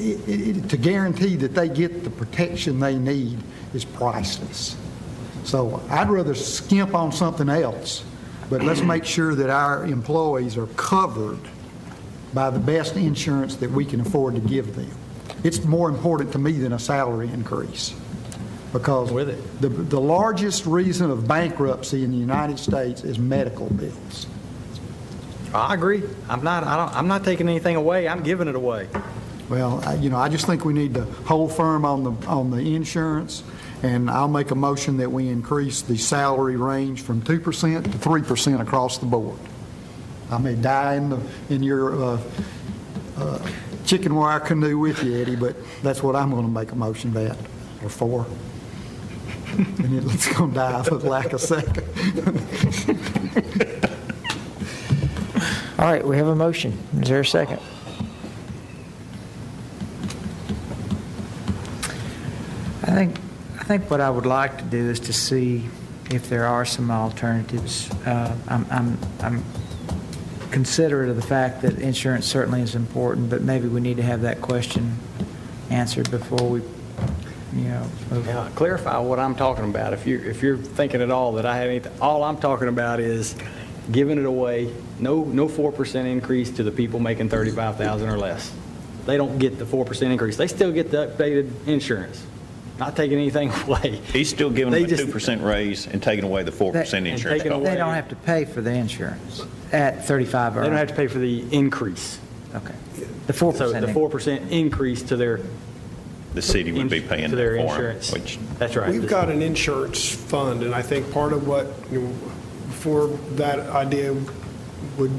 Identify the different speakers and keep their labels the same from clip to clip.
Speaker 1: it- it- to guarantee that they get the protection they need is priceless. So I'd rather skimp on something else, but let's make sure that our employees are covered by the best insurance that we can afford to give them. It's more important to me than a salary increase, because
Speaker 2: With it.
Speaker 1: the, the largest reason of bankruptcy in the United States is medical bills.
Speaker 2: I agree. I'm not, I don't, I'm not taking anything away. I'm giving it away.
Speaker 1: Well, I- you know, I just think we need to hold firm on the, on the insurance, and I'll make a motion that we increase the salary range from 2% to 3% across the board. I may die in the, in your uh, uh, chicken wire canoe with you, Eddie, but that's what I'm going to make a motion that, or for. And it's going to die for lack of second.
Speaker 3: All right, we have a motion. Is there a second? I think, I think what I would like to do is to see if there are some alternatives. Uh, I'm, I'm, I'm considerate of the fact that insurance certainly is important, but maybe we need to have that question answered before we, you know, move
Speaker 2: Now, clarify what I'm talking about. If you, if you're thinking at all that I had anything, all I'm talking about is giving it away. No, no 4% increase to the people making 35,000 or less. They don't get the 4% increase. They still get the updated insurance. Not taking anything away.
Speaker 4: He's still giving them
Speaker 2: They
Speaker 4: a
Speaker 2: just-
Speaker 4: 2% raise and taking away the 4%
Speaker 3: And
Speaker 4: insurance
Speaker 2: taking
Speaker 4: cost.
Speaker 3: They don't have to pay for the insurance at 35
Speaker 2: They
Speaker 3: or...
Speaker 2: don't have to pay for the increase.
Speaker 3: Okay. The 4%.
Speaker 2: So the
Speaker 3: increase.
Speaker 2: 4% increase to their.
Speaker 4: The city would be paying
Speaker 2: To their
Speaker 4: that for them,
Speaker 2: insurance.
Speaker 4: which
Speaker 2: That's right.
Speaker 5: We've got an insurance fund, and I think part of what, you know, before that idea would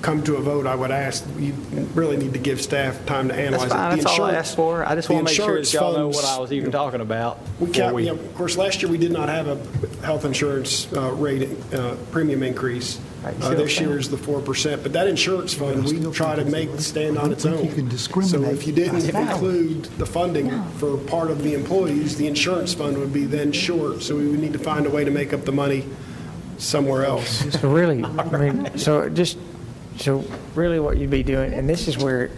Speaker 5: come to a vote, I would ask, you really need to give staff time to
Speaker 2: That's
Speaker 5: analyze it.
Speaker 2: fine,
Speaker 5: The
Speaker 2: that's all I
Speaker 5: insurance-
Speaker 2: asked for. I just
Speaker 5: the
Speaker 2: want to make sure that
Speaker 5: insurance
Speaker 2: y'all know what
Speaker 5: funds-
Speaker 2: I was even talking about.
Speaker 5: We
Speaker 2: before
Speaker 5: can't, you know, of course, last year, we did not have a health insurance uh, rate, uh, premium increase.
Speaker 3: Right, you see
Speaker 5: Uh,
Speaker 3: what I'm
Speaker 5: This year
Speaker 3: saying?
Speaker 5: is the 4%, but that insurance fund, we try to make stand on its
Speaker 1: I don't
Speaker 5: own.
Speaker 1: think you can discriminate
Speaker 5: So if you didn't
Speaker 1: by salary.
Speaker 5: include the funding for part of the employees, the insurance fund would be then short, so we would need to find a way to make up the money somewhere else.
Speaker 3: So really, I mean, so just, so really what you'd be doing, and this is where,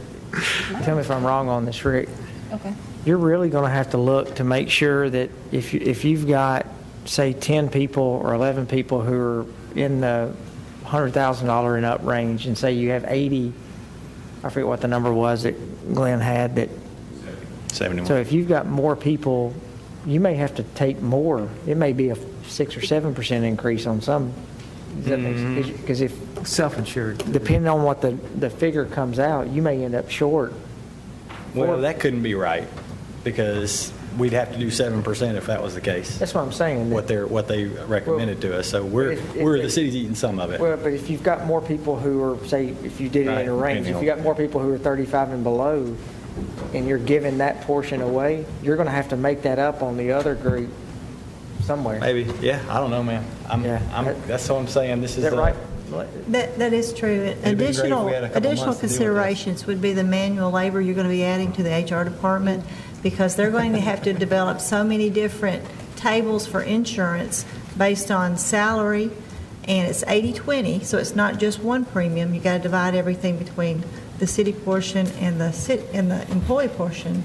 Speaker 3: tell me if I'm wrong on this, Rick,
Speaker 6: Okay.
Speaker 3: you're really going to have to look to make sure that if, you- if you've got, say, 10 people or 11 people who are in the $100,000 and up range, and say you have 80, I forget what the number was that Glenn had, that,
Speaker 4: 71.
Speaker 3: so if you've got more people, you may have to take more. It may be a 6 or 7% increase on some,
Speaker 2: Mm-hmm.
Speaker 3: because if,
Speaker 7: Self-insured.
Speaker 3: depending on what the, the figure comes out, you may end up short.
Speaker 2: Well, that couldn't be right, because we'd have to do 7% if that was the case,
Speaker 3: That's what I'm saying. that-
Speaker 2: what they're, what they recommended to us. So we're,
Speaker 3: If- if-
Speaker 2: we're, the city's eating some of it.
Speaker 3: Well, but if you've got more people who are, say, if you did it in a
Speaker 2: Right,
Speaker 3: range, if
Speaker 2: depending
Speaker 3: you got more people who are 35 and below, and you're giving that portion away, you're going to have to make that up on the other group somewhere.
Speaker 2: Maybe, yeah, I don't know, man. I'm,
Speaker 3: Yeah.
Speaker 2: I'm, that's what I'm saying, this
Speaker 3: Is
Speaker 2: is.
Speaker 3: that
Speaker 2: a-
Speaker 3: right?
Speaker 8: That, that is true.
Speaker 2: been great if we had a couple
Speaker 8: Additional,
Speaker 2: months to deal
Speaker 8: additional
Speaker 2: with this.
Speaker 8: considerations would be the manual labor you're going to be adding to the HR department, because they're going to have to develop so many different tables for insurance based on salary, and it's 80/20, so it's not just one premium. You got to divide everything between the city portion and the city, and the employee portion.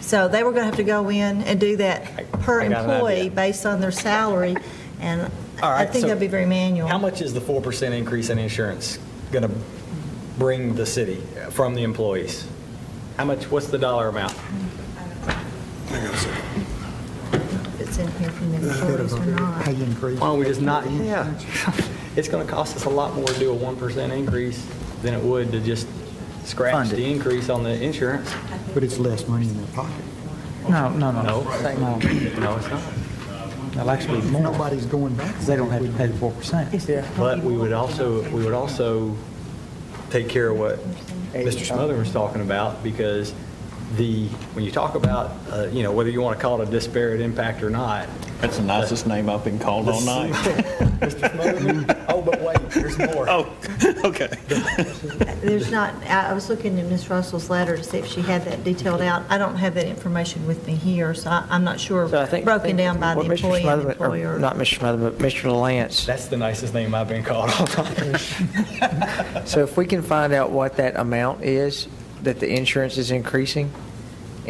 Speaker 8: So they were going to have to go in and do that
Speaker 2: I-
Speaker 8: per
Speaker 2: I got an idea.
Speaker 8: employee based on their salary, and
Speaker 2: All
Speaker 8: I
Speaker 2: right,
Speaker 8: think
Speaker 2: so
Speaker 8: that'd be very manual.
Speaker 2: How much is the 4% increase in insurance going to bring the city from the employees? How much, what's the dollar amount?
Speaker 8: It's in here from the employees or not.
Speaker 1: Pay increase.
Speaker 2: Why don't we just not, yeah. It's going to cost us a lot more to do a 1% increase than it would to just scratch
Speaker 3: Fund it.
Speaker 2: the increase on the insurance.
Speaker 1: But it's less money in their pocket.
Speaker 7: No, no,
Speaker 2: No.
Speaker 7: no. No,
Speaker 2: No, it's not.
Speaker 7: that'll actually be more,
Speaker 1: Nobody's going back.
Speaker 7: because they don't have to pay the 4%.
Speaker 2: But we would also, we would also take care of what Mr. Smotherman was talking about, because the, when you talk about, uh, you know, whether you want to call it a disparate impact or not,
Speaker 4: That's the nicest name I've been called all night.
Speaker 2: Mr. Smotherman, oh, but wait, there's more.
Speaker 4: Oh, okay.
Speaker 8: There's not, I I was looking in Ms. Russell's letter to see if she had that detailed out. I don't have that information with me here, so I- I'm not sure,
Speaker 3: So I think-
Speaker 8: broken down by the
Speaker 3: what Mr.
Speaker 8: employee and
Speaker 3: Smotherman- or
Speaker 8: employer.
Speaker 3: Not Mr. Smotherman, but Mr. Lance.
Speaker 2: That's the nicest name I've been called all time.
Speaker 3: So if we can find out what that amount is, that the insurance is increasing,